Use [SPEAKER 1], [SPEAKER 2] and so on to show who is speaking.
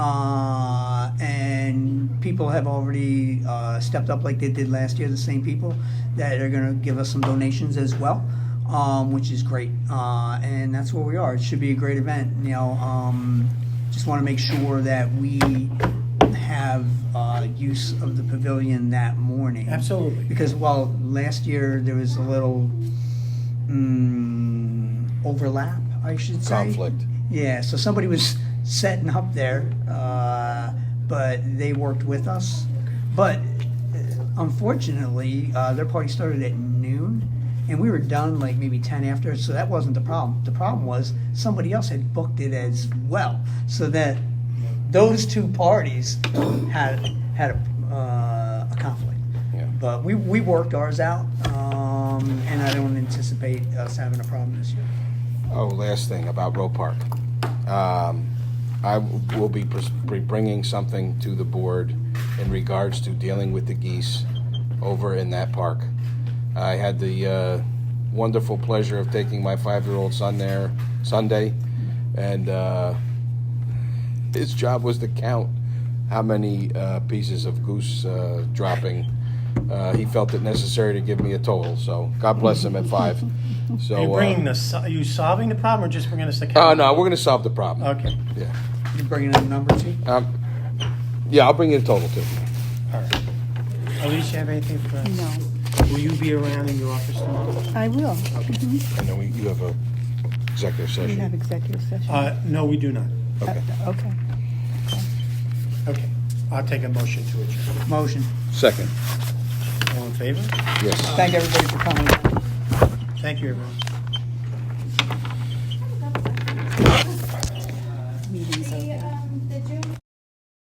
[SPEAKER 1] Uh, people have already uh, stepped up like they did last year, the same people that are going to give us some donations as well, um, which is great. Uh, and that's where we are. It should be a great event. You know, um, just want to make sure that we have uh, use of the pavilion that morning.
[SPEAKER 2] Absolutely.
[SPEAKER 1] Because while last year there was a little mm, overlap, I should say.
[SPEAKER 3] conflict.
[SPEAKER 1] Yeah, so somebody was setting up there, uh, but they worked with us. But uh, unfortunately, uh, their party started at noon, and we were done like maybe 10 after, so that wasn't the problem. The problem was somebody else had booked it as well, so that those two parties had, had a, uh, a conflict.
[SPEAKER 3] Yeah.
[SPEAKER 1] But we, we worked ours out, um, and I don't anticipate us having a problem this year.
[SPEAKER 3] Oh, last thing about Roe Park. Um, I w- will be pres- be bringing something to the board in regards to dealing with the geese over in that park. I had the uh, wonderful pleasure of taking my five-year-old son there Sunday, and uh, his job was to count how many uh, pieces of goose uh, dropping. Uh, he felt it necessary to give me a total, so God bless him at five. So
[SPEAKER 2] Are you bringing
[SPEAKER 3] uh,
[SPEAKER 2] the, so- are you solving the problem or just bringing us the
[SPEAKER 3] Oh
[SPEAKER 2] count?
[SPEAKER 3] no, we're gonna solve the problem.
[SPEAKER 2] Okay,
[SPEAKER 3] Yeah.
[SPEAKER 1] You bringing in a number two?
[SPEAKER 3] Um, yeah, I'll bring you the total too.
[SPEAKER 2] all right. Elise, you have anything for us?
[SPEAKER 4] No,
[SPEAKER 2] Will you be around in your office tomorrow?
[SPEAKER 4] I will. Mm-hmm.
[SPEAKER 3] And then we, you have a executive
[SPEAKER 4] We have
[SPEAKER 3] session.
[SPEAKER 4] executive session.
[SPEAKER 2] Uh, no, we do not.
[SPEAKER 3] Okay.
[SPEAKER 4] Uh, Okay.
[SPEAKER 2] Okay, I'll take a motion to adjourn.
[SPEAKER 1] Motion.
[SPEAKER 3] Second.
[SPEAKER 2] All in favor?
[SPEAKER 3] Yes.
[SPEAKER 1] Thank everybody for coming.
[SPEAKER 2] Thank you, everyone.